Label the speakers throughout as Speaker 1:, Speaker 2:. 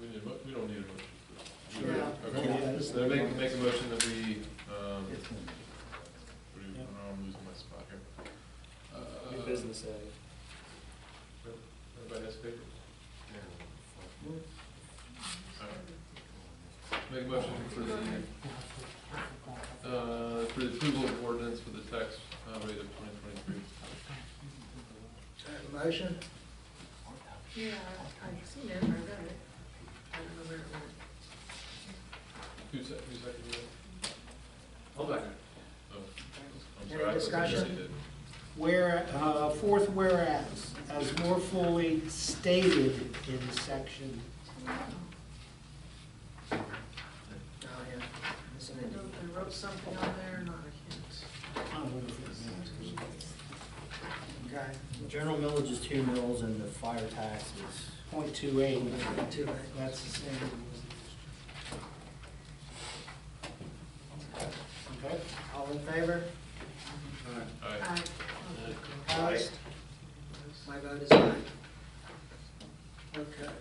Speaker 1: We need, a mo- we don't need a motion.
Speaker 2: Yeah.
Speaker 1: Okay, so I make, make a motion that we, um,
Speaker 2: It's one.
Speaker 1: what do you- oh, I'm losing my spot here. Uh,
Speaker 3: New business uh, A.
Speaker 1: Everybody has paper? Alright. Make a motion for the, uh, for the approval of ordinance for the tax uh, rate of twenty twenty-three.
Speaker 2: Uh, Motion?
Speaker 4: Yeah, I seen it, I read it. I don't know where it went.
Speaker 1: Who sec, who seconded that?
Speaker 3: Hold on.
Speaker 1: Oh, I'm
Speaker 2: Any
Speaker 1: sorry. I thought somebody
Speaker 2: discussion?
Speaker 1: did.
Speaker 2: Where, uh, fourth whereas, as more fully stated in section,
Speaker 4: Oh, yeah. I don't know if I wrote something on there or not, I
Speaker 2: I don't know if it's in there.
Speaker 4: can't.
Speaker 5: General millage is two mills and the fire tax is,
Speaker 2: point two eight,
Speaker 4: Okay. Too late.
Speaker 2: that's the same. Okay,
Speaker 5: all in favor?
Speaker 1: Alright,
Speaker 4: Aye.
Speaker 5: Opposed?
Speaker 4: My vote is aye. Okay.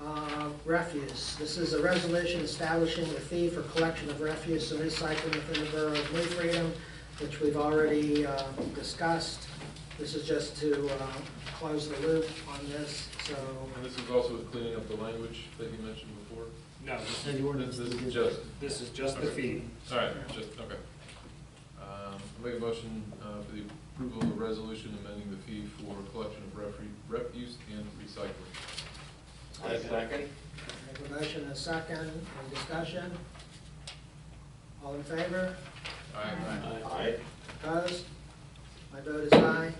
Speaker 5: Uh, Refuse, this is a resolution establishing a fee for collection of refuse and recycling within the borough of New Freedom, which we've already uh, discussed. This is just to uh, close the loop on this, so
Speaker 1: and this is also with cleaning up the language that you mentioned before?
Speaker 3: No, this-
Speaker 1: This this is just,
Speaker 3: this is just the fee.
Speaker 1: alright, just, okay. Um, I make a motion, uh, for the approval of a resolution amending the fee for collection of refre- refuse and recycling.
Speaker 5: make a motion and a second, any discussion? All in favor?
Speaker 1: Alright,
Speaker 5: Opposed? My vote is aye.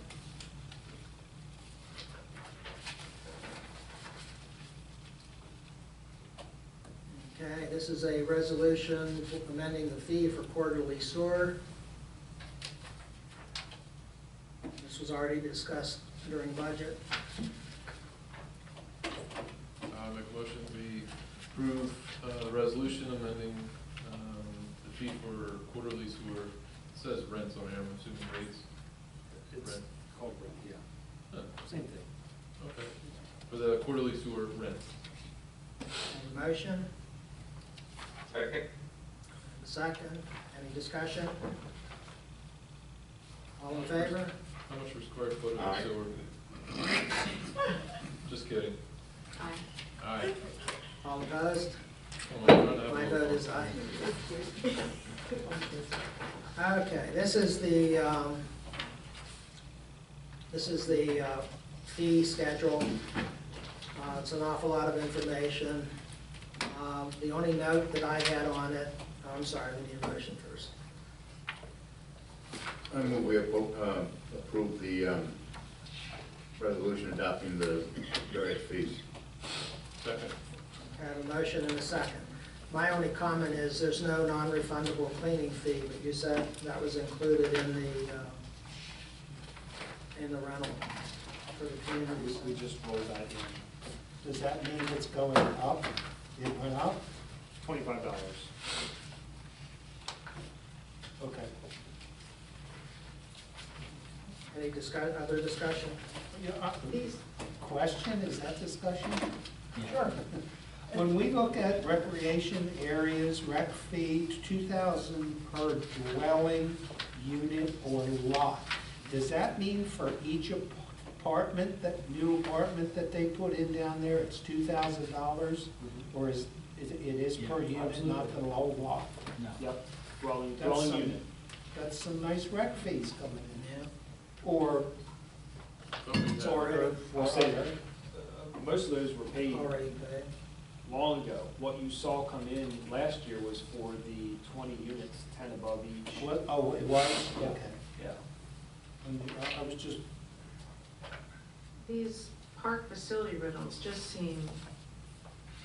Speaker 5: Okay, this is a resolution amending the fee for quarterly sewer. This was already discussed during budget.
Speaker 1: I make a motion that we approve, uh, the resolution amending, um, the fee for quarterly sewer, it says rents on here, I'm assuming rates.
Speaker 3: It's
Speaker 1: Rent.
Speaker 3: called rent, yeah.
Speaker 1: Huh,
Speaker 3: Same thing.
Speaker 1: Okay, for the quarterly sewer rent.
Speaker 5: Any motion? Second. Second, any discussion? All in favor?
Speaker 1: How much per square foot of sewer? Just kidding.
Speaker 4: Aye.
Speaker 1: Alright.
Speaker 5: All opposed? My
Speaker 1: My
Speaker 5: vote is aye. Okay, this is the, um, this is the uh, fee schedule. Uh, It's an awful lot of information. Um, The only note that I had on it, oh, I'm sorry, we need a motion first.
Speaker 6: I move we appro- uh, approve the um, resolution adopting the various fees.
Speaker 1: Second.
Speaker 5: I have a motion and a second. My only comment is there's no non-refundable cleaning fee, but you said that was included in the, uh, in the rental for the community.
Speaker 3: We- We just rolled that in,
Speaker 2: does that mean it's going up? It went up?
Speaker 3: twenty-five dollars.
Speaker 2: Okay.
Speaker 5: Any discuss, other discussion?
Speaker 2: Yeah, uh, Question, is that discussion? Sure. When we look at recreation areas, rec fee, two thousand per dwelling unit or lot, does that mean for each ap- apartment, that new apartment that they put in down there, it's two thousand dollars?
Speaker 3: Mm-hmm.
Speaker 2: Or is, is it it is per unit, not the whole lot?
Speaker 3: Yep, dwelling,
Speaker 2: That's
Speaker 3: dwelling
Speaker 2: some-
Speaker 3: unit.
Speaker 2: That's some nice rec fees coming in.
Speaker 5: Yeah.
Speaker 2: Or,
Speaker 1: Something that-
Speaker 2: or,
Speaker 3: I'll
Speaker 2: or
Speaker 3: say that. Uh, Most of those were paid
Speaker 5: Already paid.
Speaker 3: long ago. What you saw come in last year was for the twenty units, ten above each.
Speaker 2: What, oh, it was, okay.
Speaker 3: Yeah.
Speaker 2: And I- I was just,
Speaker 4: These park facility rentals just seem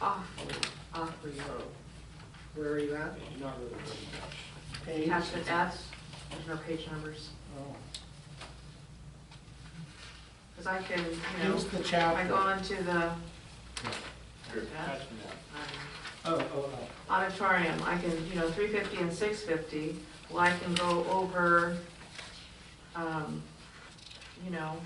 Speaker 4: awfully, awfully low.
Speaker 5: Where are you at?
Speaker 3: You're not really very
Speaker 2: page.
Speaker 4: Attachment F, there's no page numbers,
Speaker 2: Oh.
Speaker 4: because I can, you know,
Speaker 2: Here's the
Speaker 4: I go
Speaker 2: chapter.
Speaker 4: on to the.
Speaker 3: much.
Speaker 4: Yeah,
Speaker 3: Attachment F.
Speaker 4: um,
Speaker 2: Oh, oh, oh.
Speaker 4: auditorium, I can, you know, three fifty and six fifty, well, I can go over, um, you know,